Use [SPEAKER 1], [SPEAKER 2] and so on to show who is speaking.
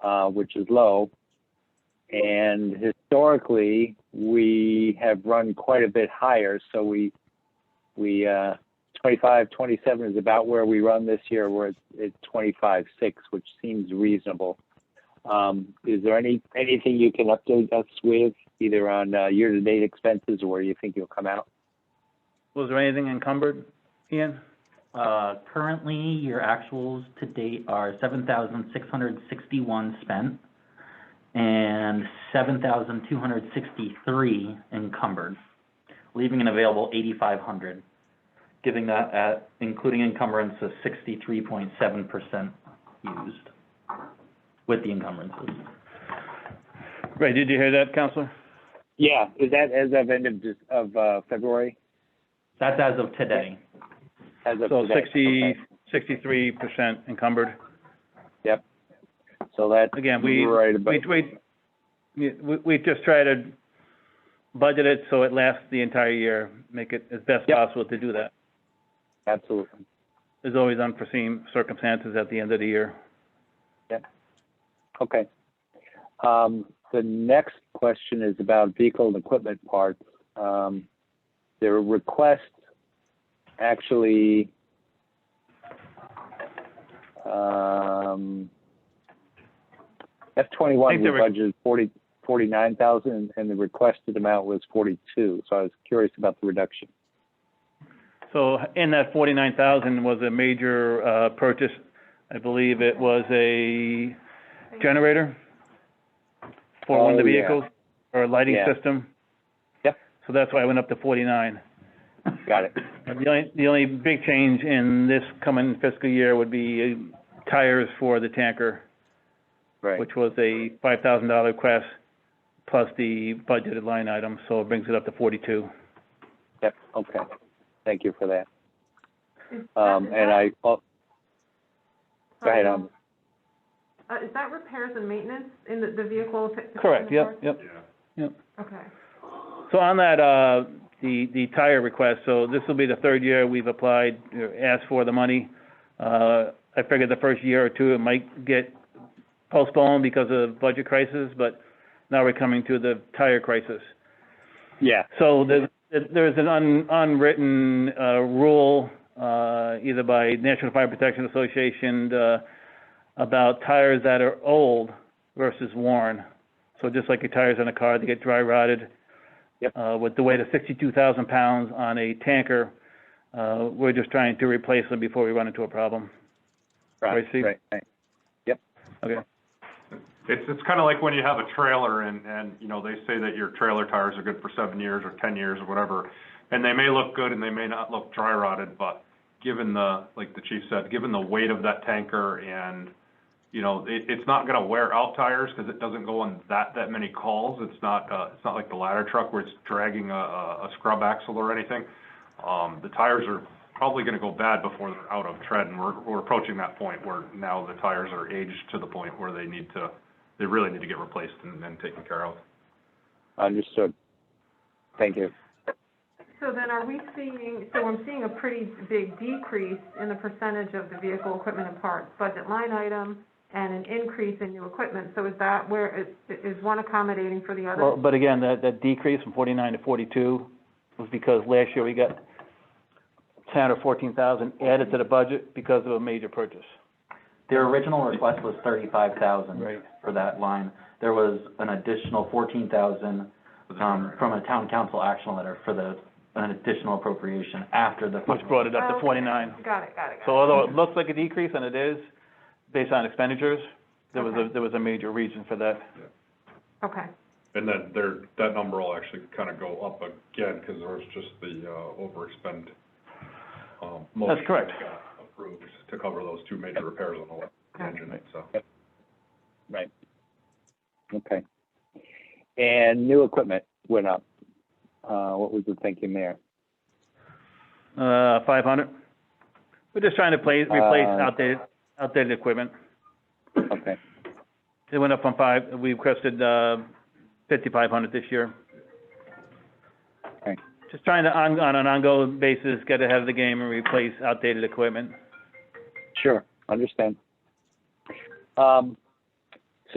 [SPEAKER 1] uh, which is low. And historically, we have run quite a bit higher. So we, we, uh, 25, 27 is about where we run this year. We're at, at 25, 6, which seems reasonable. Um, is there any, anything you can update us with either on, uh, year-to-date expenses or where you think you'll come out?
[SPEAKER 2] Was there anything encumbered, Ian?
[SPEAKER 3] Uh, currently, your actuals to date are seven thousand six hundred sixty-one spent and seven thousand two hundred sixty-three encumbered, leaving an available eighty-five hundred, giving that at, including encumbrance of sixty-three point seven percent used with the encumbrances.
[SPEAKER 2] Ray, did you hear that, Counselor?
[SPEAKER 1] Yeah, is that as of end of, Dec- of, uh, February?
[SPEAKER 3] That's as of today.
[SPEAKER 1] As of
[SPEAKER 2] So
[SPEAKER 1] today?
[SPEAKER 2] sixty,
[SPEAKER 1] Okay.
[SPEAKER 2] sixty-three percent encumbered.
[SPEAKER 1] So that's
[SPEAKER 2] Again, we,
[SPEAKER 1] right
[SPEAKER 2] we,
[SPEAKER 1] about,
[SPEAKER 2] we, yeah, we, we just try to budget it so it lasts the entire year, make it as best
[SPEAKER 1] Yep.
[SPEAKER 2] possible to do that.
[SPEAKER 1] absolutely.
[SPEAKER 2] There's always unforeseen circumstances at the end of the year.
[SPEAKER 1] Okay. Um, The next question is about vehicle and equipment parts. Um, Their request actually, um, F
[SPEAKER 2] I
[SPEAKER 1] twenty-one,
[SPEAKER 2] think
[SPEAKER 1] we
[SPEAKER 2] the re-
[SPEAKER 1] budgeted forty, forty-nine thousand, and the requested amount was forty-two. So I was curious about the reduction.
[SPEAKER 2] So in that forty-nine thousand was a major, uh, purchase. I believe it was a generator for one of the
[SPEAKER 1] Oh, yeah.
[SPEAKER 2] vehicles, or a lighting
[SPEAKER 1] Yeah.
[SPEAKER 2] system.
[SPEAKER 1] Yep.
[SPEAKER 2] So that's why I went up to forty-nine.
[SPEAKER 1] Got it.
[SPEAKER 2] The only, the only big change in this coming fiscal year would be uh, tires for the tanker,
[SPEAKER 1] Right.
[SPEAKER 2] which was a five thousand dollar request, plus the budgeted line item, so it brings it up to forty-two.
[SPEAKER 1] Yep, okay. Thank you for that. Um, And I, oh, go ahead, um,
[SPEAKER 4] Uh, is that repairs and maintenance in the, the vehicle?
[SPEAKER 2] Correct, yep, yep.
[SPEAKER 4] Okay.
[SPEAKER 2] So on that, uh, the, the tire request, so this will be the third year we've applied, uh, asked for the money. Uh, I figured the first year or two, it might get postponed because of budget crisis, but now we're coming to the tire crisis.
[SPEAKER 1] yeah,
[SPEAKER 2] So there's, there's an un- unwritten, uh, rule, uh, either by National Fire Protection Association, uh, about tires that are old versus worn. So just like your tires on a car, they get dry rotted.
[SPEAKER 1] Yep.
[SPEAKER 2] Uh, with the weight of sixty-two thousand pounds on a tanker, uh, we're just trying to replace them before we run into a problem.
[SPEAKER 1] right,
[SPEAKER 2] Right, Steve?
[SPEAKER 1] right, right.
[SPEAKER 2] Okay.
[SPEAKER 5] It's, it's kind of like when you have a trailer and, and, you know, they say that your trailer tires are good for seven years or 10 years or whatever. And they may look good and they may not look dry rotted, but given the, like the chief said, given the weight of that tanker and, you know, it, it's not going to wear out tires because it doesn't go on that, that many calls. It's not, uh, it's not like the ladder truck where it's dragging a, a a scrub axle or anything. Um, the tires are probably going to go bad before they're out of tread, and we're, we're approaching that point where now the tires are aged to the point where they need to, they really need to get replaced and, and taken care of.
[SPEAKER 1] Understood. Thank you.
[SPEAKER 4] So then are we seeing, so I'm seeing a pretty big decrease in the percentage of the vehicle, equipment and parts budget line item and an increase in new equipment. So is that where, is, is one accommodating for the
[SPEAKER 2] Well,
[SPEAKER 4] other?
[SPEAKER 2] but again, that, that decrease from forty-nine to forty-two was because last year we got ten or fourteen thousand added to the budget because of a major purchase.
[SPEAKER 3] Their original request was thirty-five thousand.
[SPEAKER 2] Right.
[SPEAKER 3] for that line. There was an additional fourteen thousand, um, from a town council action letter for the, an additional appropriation after the.
[SPEAKER 2] Which brought it up to
[SPEAKER 4] Okay.
[SPEAKER 2] forty-nine.
[SPEAKER 4] Got it, got it, got it.
[SPEAKER 2] So although it looks like a decrease, and it is, based on expenditures, there was a,
[SPEAKER 4] Okay.
[SPEAKER 2] there was a major reason for that.
[SPEAKER 4] Okay,
[SPEAKER 5] And then there, that number will actually kind of go up again, because there was just the, uh, overexpend, um, motion that
[SPEAKER 2] correct.
[SPEAKER 5] got Approved to cover those two major repairs on the engine, so.
[SPEAKER 1] Okay. And new equipment went up. Uh, what was the thinking there?
[SPEAKER 2] Uh, five hundred? We're just trying to play, replace
[SPEAKER 1] Uh,
[SPEAKER 2] outdated, outdated equipment.
[SPEAKER 1] Okay,
[SPEAKER 2] It went up from five, we requested, uh, fifty-five hundred this year.
[SPEAKER 1] Okay.
[SPEAKER 2] Just trying to, on, on an ongoing basis, get ahead of the game and replace outdated equipment.
[SPEAKER 1] sure, understand. Um,